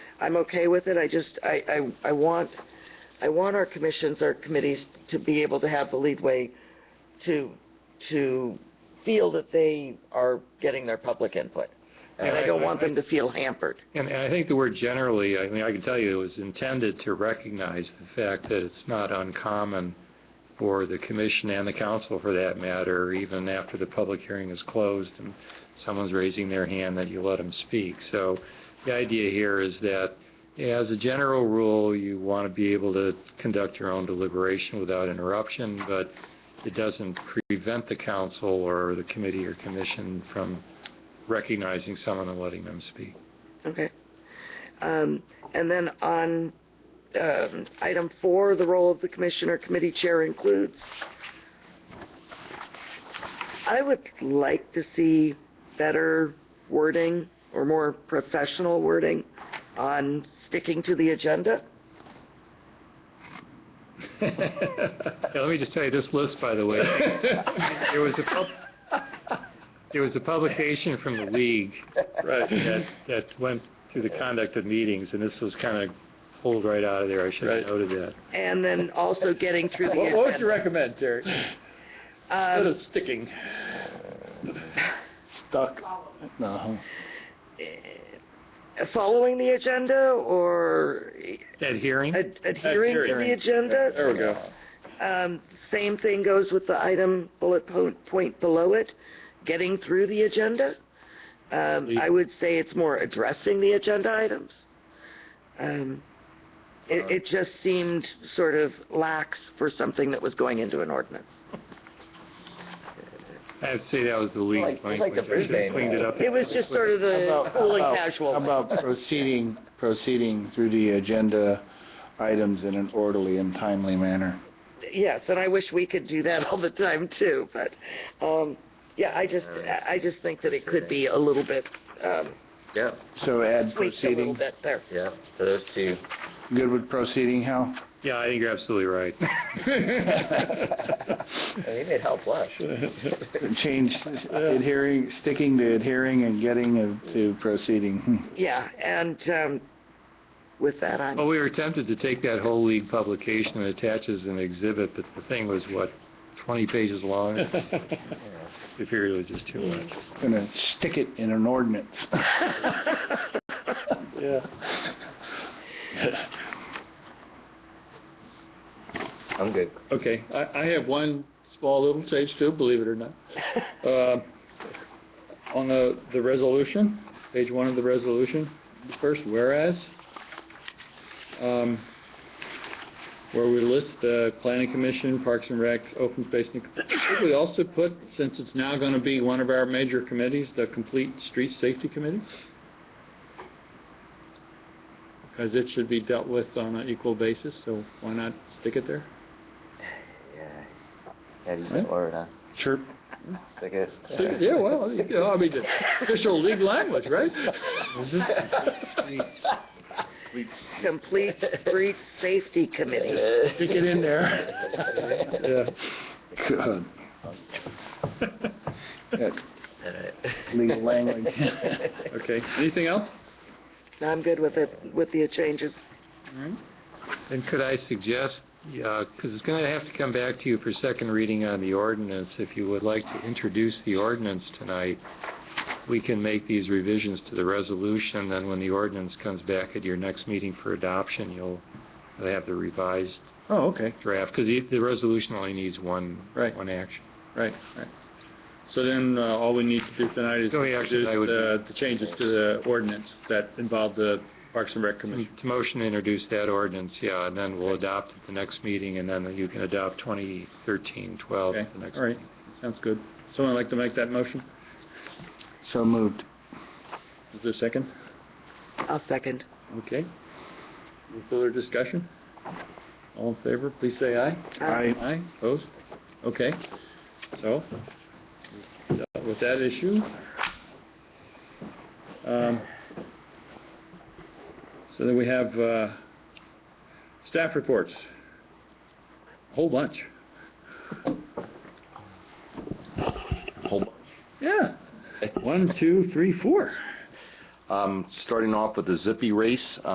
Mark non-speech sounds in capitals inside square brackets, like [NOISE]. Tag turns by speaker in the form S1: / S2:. S1: I'm okay with it, I just, I, I, I want, I want our commissions, our committees to be able to have the leadway to, to feel that they are getting their public input. And I don't want them to feel hampered.
S2: And and I think the word generally, I mean, I can tell you it was intended to recognize the fact that it's not uncommon for the commission and the council for that matter, even after the public hearing is closed and someone's raising their hand, that you let them speak. So the idea here is that as a general rule, you want to be able to conduct your own deliberation without interruption, but it doesn't prevent the council or the committee or commission from recognizing someone and letting them speak.
S1: Okay. Um, and then on, um, item four, the role of the commissioner committee chair includes, I would like to see better wording or more professional wording on sticking to the agenda.
S2: Yeah, let me just tell you, this list, by the way, there was a pub- there was a publication from the league
S3: [LAUGHS]
S2: that, that went through the conduct of meetings, and this was kind of pulled right out of there. I should have
S4: Right.
S2: noted that.
S1: And then also getting through the
S4: [LAUGHS] What, what would
S1: agenda.
S4: you recommend, Terry? Instead
S1: Um,
S4: of sticking. Stuck. No.
S1: eh, following the agenda or
S2: That hearing?
S1: ad- adhering to the agenda?
S4: There we go.
S1: Um, same thing goes with the item bullet po- point below it, getting through the agenda. Um, I would say it's more addressing the agenda items. Um,
S5: Uh.
S1: it, it just seemed sort of lax for something that was going into an ordinance.
S2: I'd say that was the league
S6: Like- like
S2: language.
S6: the
S2: I should have cleaned it up.
S1: It was just sort of the
S5: About-
S1: cool and
S5: about-
S1: casual. way.
S5: About proceeding, proceeding through the agenda items in an orderly and timely manner.
S1: Yes, and I wish we could do that [LAUGHS] all the time too, but, um, yeah, I just, I I just think that it could be a little bit, um,
S3: Yeah,
S5: So add
S1: tweaked a little
S5: proceeding,
S1: bit there.
S3: yeah, so those two.
S5: good with proceeding,
S1: [LAUGHS]
S5: Hal?
S2: Yeah, I think you're absolutely right.
S3: I mean, it helped us.
S5: Change adhering, sticking to adhering and getting of- to proceeding. Hmm.
S1: Yeah, and, um, with that, I'm,
S2: Well, we were tempted to take that whole league publication and attach as an exhibit, but the thing was, what, 20 pages long? It appeared it was just too much.
S5: Gonna stick it in an
S1: [LAUGHS]
S5: ordinance.
S4: Yeah.
S3: I'm good.
S4: Okay, I, I have one small little change too, believe it or not. Uh, On the, the resolution, page one of the resolution, first whereas, um, where we list the planning commission, parks and recs, open space. and- Should we also put, since it's now going to be one of our major committees, the complete street safety committee? Because it should be dealt with on an equal basis, so why not stick it there?
S3: Yeah. How do you say Florida?
S4: Sure.
S3: I guess.
S4: Yeah, well, you know, I mean, the official league language, right?
S1: complete street safety committee.
S4: [LAUGHS] Stick it
S3: [LAUGHS]
S4: in there. Yeah.
S5: Good. That
S3: [LAUGHS]
S5: Legal language.
S4: [LAUGHS] Okay, anything else?
S1: I'm good with it, with the changes.
S2: And could I suggest, because it's going to have to come back to you for second reading on the ordinance, if you would like to introduce the ordinance tonight, we can make these revisions to the resolution, then when the ordinance comes back at your next meeting for adoption, you'll have the revised
S4: Oh, okay,
S2: draft, because the resolution only needs one,
S4: Right.
S2: one action.
S4: right, right. So then, uh, all we need to do tonight is
S2: The only action
S4: introduce uh,
S2: I would-
S4: the, the changes to the ordinance that involve the Parks and Rec Commission.
S2: To motion to introduce that ordinance, yeah, and then we'll adopt at the next meeting, and then you can adopt 2013-12
S4: Okay,
S2: at the next
S4: all right, sounds good. Someone like to make that motion?
S5: So moved.
S4: Is there a second?
S1: I'll second.
S4: Okay. Any further discussion? All in favor, please say aye.
S5: I,
S4: Aye, opposed? Okay, so, dealt with that issue. Um, So then we have uh, staff reports, a whole bunch.
S7: whole bunch.
S4: Yeah, one, two, three, four.
S7: Um, starting off with the Zippy Race,